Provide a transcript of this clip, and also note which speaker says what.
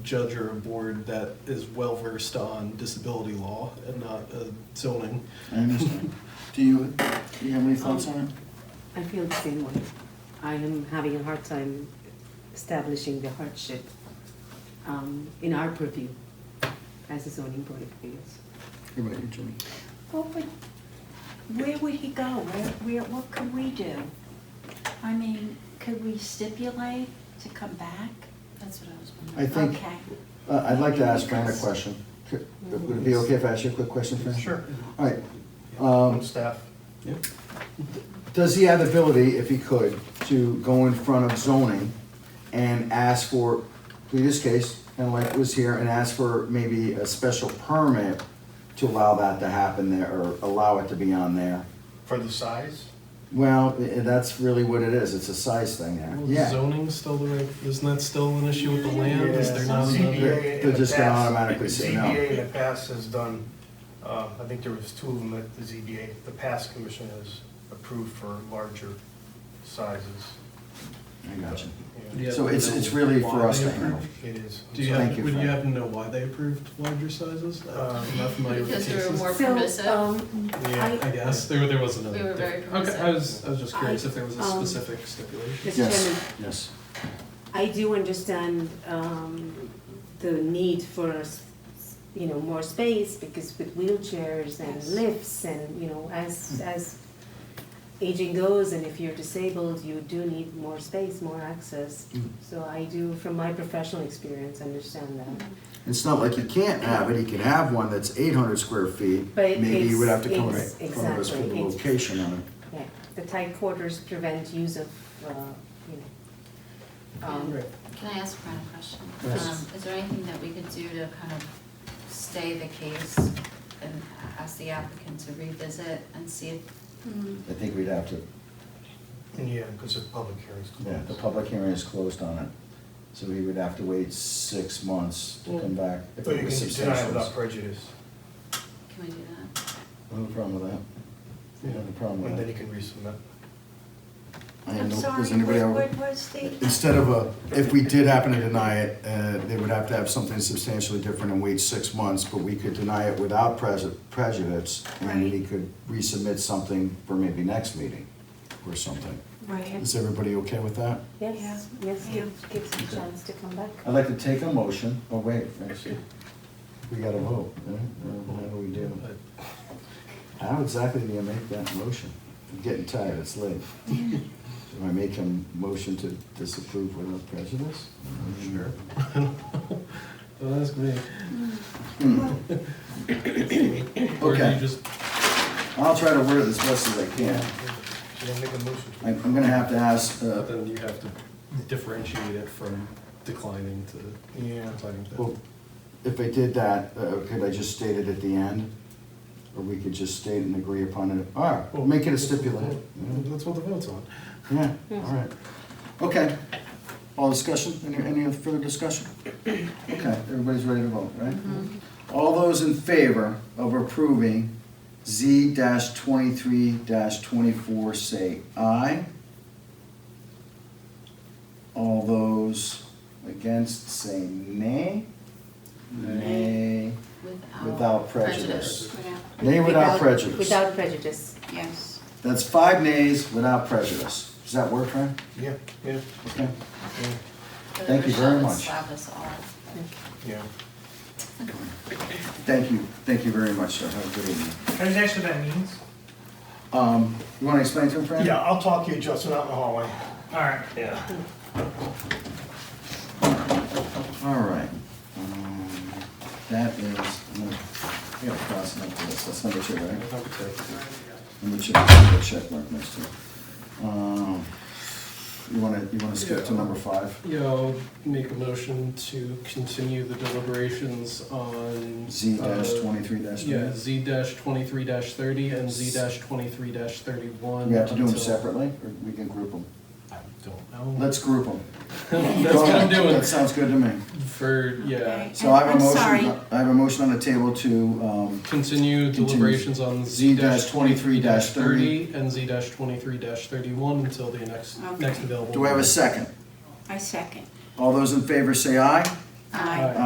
Speaker 1: judge or a board that is well versed on disability law and not uh, zoning.
Speaker 2: I understand. Do you, do you have any thoughts on it?
Speaker 3: I feel the same way. I am having a hard time establishing the hardship um, in our purview as a zoning board of appeals.
Speaker 2: What about you, Jimmy?
Speaker 4: What would, where would he go? Where, where, what could we do? I mean, could we stipulate to come back?
Speaker 5: That's what I was
Speaker 2: I
Speaker 5: wondering.
Speaker 2: think,
Speaker 4: Okay.
Speaker 2: uh, I'd like to ask Fran a question. Could- Would it be okay if I ask you a quick question, Fran?
Speaker 6: Sure.
Speaker 2: All right. Um,
Speaker 6: Staff.
Speaker 1: Yep.
Speaker 2: Does he have the ability, if he could, to go in front of zoning and ask for, in this case, and like was here, and ask for maybe a special permit to allow that to happen there, or allow it to be on there?
Speaker 6: For the size?
Speaker 2: Well, i- that's really what it is, it's a size thing there,
Speaker 1: Well,
Speaker 2: yeah.
Speaker 1: Zoning's still the right, isn't that still an issue with the land? Is there not another?
Speaker 6: ZBA in
Speaker 2: They're
Speaker 6: the
Speaker 2: just gonna
Speaker 6: past-
Speaker 2: automatically say no.
Speaker 6: ZBA in the past has done, uh, I think there was two of them at the ZBA, the past commission has approved for larger sizes.
Speaker 2: I got you.
Speaker 6: Yeah,
Speaker 1: Yeah,
Speaker 2: So it's,
Speaker 1: but
Speaker 2: it's
Speaker 1: no,
Speaker 2: really
Speaker 1: why
Speaker 2: for us
Speaker 1: they
Speaker 2: to handle.
Speaker 1: approved?
Speaker 6: It is.
Speaker 1: Do you
Speaker 2: Thank
Speaker 1: have,
Speaker 2: you,
Speaker 1: would you
Speaker 2: Fran.
Speaker 1: happen to know why they approved larger sizes? I'm Um, not familiar with the
Speaker 5: Because there were
Speaker 1: cases.
Speaker 5: more
Speaker 3: So,
Speaker 5: permissive.
Speaker 3: um,
Speaker 6: Yeah.
Speaker 1: I guess, there, there was another.
Speaker 5: We were very
Speaker 1: different- Okay, I was, I was just curious
Speaker 3: I-
Speaker 1: if there was a
Speaker 3: um,
Speaker 1: specific stipulation.
Speaker 3: Mr.
Speaker 2: Yes,
Speaker 3: Chairman,
Speaker 2: yes.
Speaker 3: I do understand um, the need for, s- s- you know, more space because with wheelchairs and
Speaker 5: Yes.
Speaker 3: lifts and, you know, as,
Speaker 2: Mm.
Speaker 3: as aging goes and if you're disabled, you do need more space, more access.
Speaker 2: Mm.
Speaker 3: So I do, from my professional experience, understand
Speaker 4: Mm.
Speaker 3: that.
Speaker 2: It's not like you can't have it, he can have one that's eight hundred square feet.
Speaker 3: But
Speaker 2: Maybe you would have
Speaker 3: it's-
Speaker 2: to come in
Speaker 3: it's-
Speaker 2: front of us with the
Speaker 3: exactly, it's-
Speaker 2: location on it.
Speaker 3: Yeah, the tight quarters prevent use of, uh, you know. um,
Speaker 1: Right.
Speaker 5: Can I ask Fran a question?
Speaker 2: Yes.
Speaker 5: Um, Is there anything that we could do to kind of stay the case and ask the applicant to revisit and see if?
Speaker 2: I think we'd have to,
Speaker 6: Yeah, because the public hearings
Speaker 2: yeah,
Speaker 6: closed.
Speaker 2: the public hearing is closed on it. So he would have to wait six months to come back. if
Speaker 6: But
Speaker 2: it
Speaker 6: you
Speaker 2: was
Speaker 6: can deny it
Speaker 2: substantial.
Speaker 6: without prejudice,
Speaker 5: Can we do that?
Speaker 2: No problem with that. No problem
Speaker 6: and
Speaker 2: with
Speaker 6: then you
Speaker 2: that.
Speaker 6: can resubmit.
Speaker 2: I
Speaker 4: I'm
Speaker 2: know-
Speaker 4: sorry,
Speaker 2: does anybody have-
Speaker 4: what, what was the,
Speaker 2: Instead of a, if we did happen to deny it, uh, they would have to have something substantially different and wait six months, but we could deny it without pres- prejudice, and he
Speaker 4: Right.
Speaker 2: could resubmit something for maybe next meeting or something.
Speaker 4: right,
Speaker 2: Is everybody okay with that?
Speaker 3: Yes, yes,
Speaker 4: Yeah.
Speaker 3: give- gives a chance to come back.
Speaker 2: I'd like to take a motion, oh wait, actually, we gotta vote, right? Uh, How do we do?
Speaker 1: But-
Speaker 2: How exactly do you make that motion? I'm getting tired, it's late. Do I make a motion to disapprove without prejudice?
Speaker 1: Sure. Don't ask me. Or do
Speaker 2: Okay.
Speaker 1: you just
Speaker 2: I'll try to word it as best as I can.
Speaker 6: Should I make a motion?
Speaker 2: I- I'm gonna have to ask, uh,
Speaker 1: But then you have to differentiate it from declining to
Speaker 6: Yeah.
Speaker 1: declining. to-
Speaker 2: well, if I did that, uh, could I just state it at the end? Or we could just state and agree upon it, all right, we'll make it a stipulation.
Speaker 1: That's what the vote's on.
Speaker 2: Yeah, all right. Okay, all discussion, any, any other further discussion? Okay, everybody's ready to vote, right? All those in favor of approving Z twenty-three twenty-four, say aye. All those against, say nay. Nay. Without prejudice. Nay without prejudice.
Speaker 3: Without prejudice.
Speaker 5: Yes.
Speaker 2: That's five nays without prejudice. Does that work, Fran?
Speaker 6: Yeah, yeah,
Speaker 2: Okay.
Speaker 6: yeah,
Speaker 2: Thank you very much.
Speaker 5: Slap us all.
Speaker 6: yeah.
Speaker 2: Thank you, thank you very much, sir. Have a good evening.
Speaker 7: Can I just ask what that means?
Speaker 2: Um, you wanna explain to him, Fran?
Speaker 6: Yeah, I'll talk to you, Justin, out in the hallway.
Speaker 7: All right.
Speaker 6: Yeah.
Speaker 2: All right. Um, That is, um, I'm gonna, I gotta cross it out for this, that's number two, right? Number two, put a check mark next to it. Um, You wanna, you wanna skip to number five?
Speaker 1: Yeah, I'll make a motion to continue the deliberations on.
Speaker 2: Z dash
Speaker 1: uh,
Speaker 2: twenty-three dash three?
Speaker 1: Yeah, Z dash twenty-three dash thirty and Z dash twenty-three dash thirty-one.
Speaker 2: We have to do them
Speaker 1: until-
Speaker 2: separately, or we can group them?
Speaker 1: I don't know.
Speaker 2: Let's group them.
Speaker 1: That's what I'm doing
Speaker 2: That sounds good to me.
Speaker 1: for, yeah.
Speaker 4: Okay.
Speaker 2: So I have a
Speaker 4: I'm
Speaker 2: motion,
Speaker 4: sorry.
Speaker 2: I have a motion on the table to, um,
Speaker 1: Continue deliberations on Z dash twenty-three dash thirty
Speaker 2: Z-23-30
Speaker 1: and Z dash twenty-three dash thirty-one until the next,
Speaker 4: Okay.
Speaker 1: next available.
Speaker 2: do I have a second?
Speaker 4: I second.
Speaker 2: All those in favor say aye.
Speaker 8: Aye.
Speaker 1: Aye.